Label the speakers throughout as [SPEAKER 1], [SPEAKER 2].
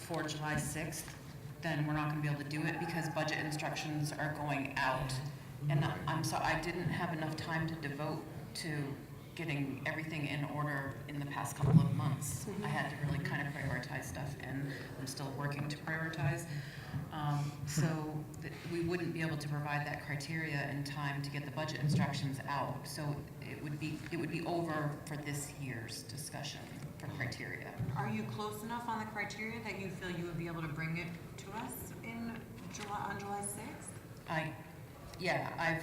[SPEAKER 1] for July 6th, then we're not going to be able to do it because budget instructions are going out. And I'm so, I didn't have enough time to devote to getting everything in order in the past couple of months. I had to really kind of prioritize stuff, and I'm still working to prioritize. Um, So th- we wouldn't be able to provide that criteria in time to get the budget instructions out. So it would be, it would be over for this year's discussion for criteria.
[SPEAKER 2] Are you close enough on the criteria that you feel you would be able to bring it to us in July, on July sixth?
[SPEAKER 1] I, yeah, I've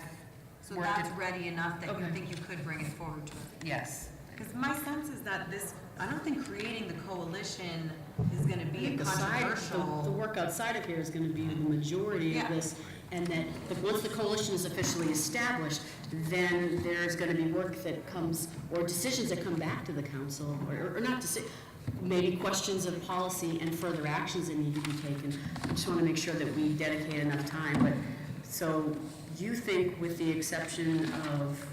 [SPEAKER 2] So
[SPEAKER 1] Worked
[SPEAKER 2] that's
[SPEAKER 1] it.
[SPEAKER 2] ready enough that you
[SPEAKER 1] Okay.
[SPEAKER 2] think you could bring it forward to us?
[SPEAKER 1] Yes.
[SPEAKER 2] Because my sense is that this, I don't think creating the coalition is gonna
[SPEAKER 3] I
[SPEAKER 2] be
[SPEAKER 3] think the side, the- the
[SPEAKER 2] controversial.
[SPEAKER 3] work outside of here is gonna be the majority of
[SPEAKER 2] Yeah.
[SPEAKER 3] this, and that, the- once the coalition is officially established, then there's gonna be work that comes, or decisions that come back to the council, or, or not to maybe questions of policy and further actions that need to be taken. I just wanna make sure that we dedicate enough time, but, so you think with the exception of,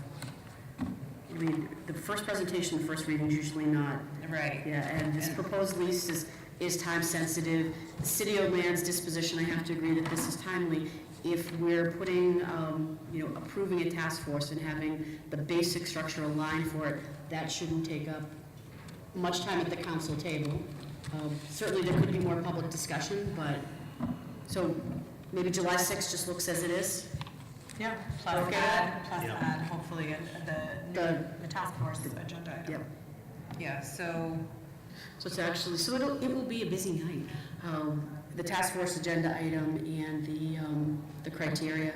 [SPEAKER 3] I mean, the first presentation, the first reading is usually not
[SPEAKER 1] Right.
[SPEAKER 3] yeah, and this proposed lease is, is time sensitive. The City of Land's disposition, I have to agree that this is timely. If we're putting, um, you know, approving a task force and having the basic structure aligned for it, that shouldn't take up much time at the council table. Um, Certainly, there could be more public discussion, but, so maybe July 6th just looks as it is.
[SPEAKER 2] Yeah. Plus
[SPEAKER 3] Okay.
[SPEAKER 2] add, plus
[SPEAKER 4] Yeah.
[SPEAKER 2] add, hopefully, uh, the,
[SPEAKER 3] The-
[SPEAKER 2] the task force agenda item.
[SPEAKER 3] Yep.
[SPEAKER 1] Yeah, so,
[SPEAKER 3] So it's actually, so it'll, it will be a busy night. Um, The task force agenda item and the, um, the criteria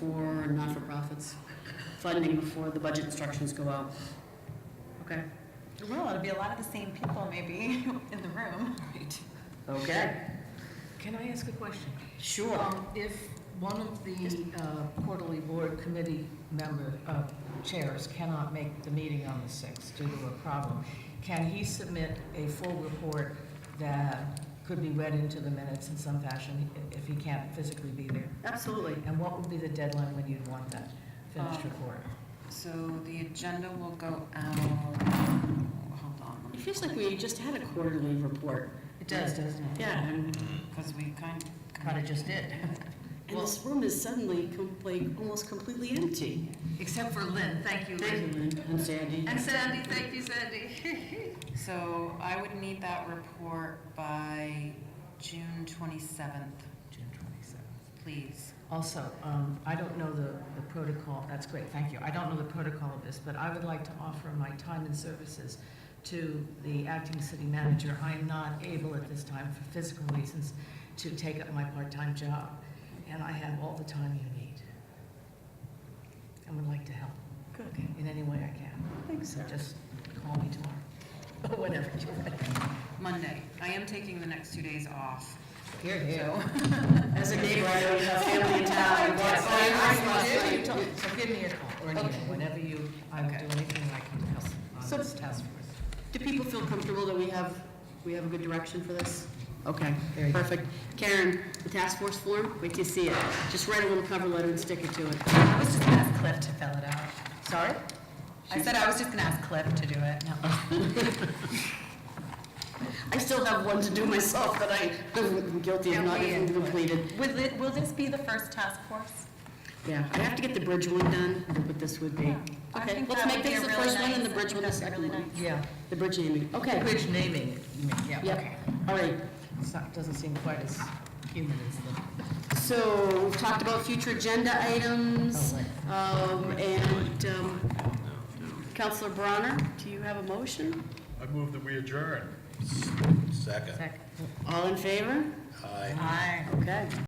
[SPEAKER 3] for not-for-profits funding before the budget instructions go out. Okay?
[SPEAKER 2] Well, it'll be a lot of the same people maybe in the room. Right.
[SPEAKER 3] Okay.
[SPEAKER 5] Can I ask a question?
[SPEAKER 3] Sure.
[SPEAKER 5] Um, If one of the uh, quarterly board committee member, uh, chairs cannot make the meeting on the 6th due to a problem, can he submit a full report that could be
[SPEAKER 1] Uh,
[SPEAKER 5] read into the minutes in some fashion if he can't physically be there?
[SPEAKER 3] Absolutely.
[SPEAKER 5] And what would be the deadline when you'd want that finished
[SPEAKER 1] Um,
[SPEAKER 5] report?
[SPEAKER 1] so the agenda will go out, hold on,
[SPEAKER 3] It feels like we just had a quarterly report.
[SPEAKER 5] It does, doesn't it?
[SPEAKER 3] Yeah, and,
[SPEAKER 1] because we kind of.
[SPEAKER 5] Kind of just did,
[SPEAKER 3] and this room is suddenly com- like almost completely empty.
[SPEAKER 2] Except for Lynn, thank you,
[SPEAKER 3] Thank you, Lynn and Sandy.
[SPEAKER 2] Sandy, thank you, Sandy.
[SPEAKER 1] So I would need that report by June twenty-seventh,
[SPEAKER 5] June 27th.
[SPEAKER 1] please.
[SPEAKER 5] Also, um, I don't know the the protocol, that's great, thank you. I don't know the protocol of this, but I would like to offer my time and services to the acting city manager. I am not able at this time, for physical reasons, to take up my part-time job, and I have all the time you need. I would like to help. Good. In any way I can.
[SPEAKER 3] Thanks,
[SPEAKER 5] So just call me tomorrow, whenever you're ready.
[SPEAKER 1] Monday, I am taking the next two days off,
[SPEAKER 5] Here,
[SPEAKER 1] so.
[SPEAKER 3] As a neighbor, I don't have family in town.
[SPEAKER 5] Yes,
[SPEAKER 3] What's-
[SPEAKER 5] I- I- I- I- So give me a call or an
[SPEAKER 1] Okay.
[SPEAKER 5] email, whenever you, I will do
[SPEAKER 1] Okay.
[SPEAKER 5] anything I can to help on
[SPEAKER 3] So-
[SPEAKER 5] this task force.
[SPEAKER 3] Do people feel comfortable that we have, we have a good direction for this? Okay,
[SPEAKER 5] Very good.
[SPEAKER 3] perfect. Karen, the task force form, wait till you see it. Just write a little cover letter and stick it to it.
[SPEAKER 2] I was just gonna ask Cliff to fill it out.
[SPEAKER 3] Sorry?
[SPEAKER 2] I said I was just gonna ask Cliff to do it.
[SPEAKER 3] I still have one to do myself that I, I'm guilty of not even completed.
[SPEAKER 2] Will it, will this be the first task force?
[SPEAKER 3] Yeah, I have to get the bridge one done, but this would be.
[SPEAKER 2] Yeah, I
[SPEAKER 3] Okay,
[SPEAKER 2] think
[SPEAKER 3] let's
[SPEAKER 2] that
[SPEAKER 3] make
[SPEAKER 2] would be
[SPEAKER 3] this
[SPEAKER 2] a
[SPEAKER 3] the
[SPEAKER 2] really
[SPEAKER 3] first one and the
[SPEAKER 2] nice-
[SPEAKER 3] bridge one the
[SPEAKER 2] that'd be
[SPEAKER 3] second
[SPEAKER 2] really
[SPEAKER 3] one.
[SPEAKER 5] Yeah,
[SPEAKER 3] The bridge naming, okay.
[SPEAKER 5] which naming, you mean, yeah,
[SPEAKER 3] Yep.
[SPEAKER 5] okay.
[SPEAKER 3] All right,
[SPEAKER 5] It's not- Doesn't seem quite as human as the,
[SPEAKER 3] So, we've talked about future agenda items,
[SPEAKER 5] Oh,
[SPEAKER 3] um, and, um, Counselor Bronner, do you have a motion?
[SPEAKER 4] I move that we adjourn. Second.
[SPEAKER 5] second.
[SPEAKER 3] All in favor?
[SPEAKER 4] Aye.
[SPEAKER 2] Aye.
[SPEAKER 3] Okay.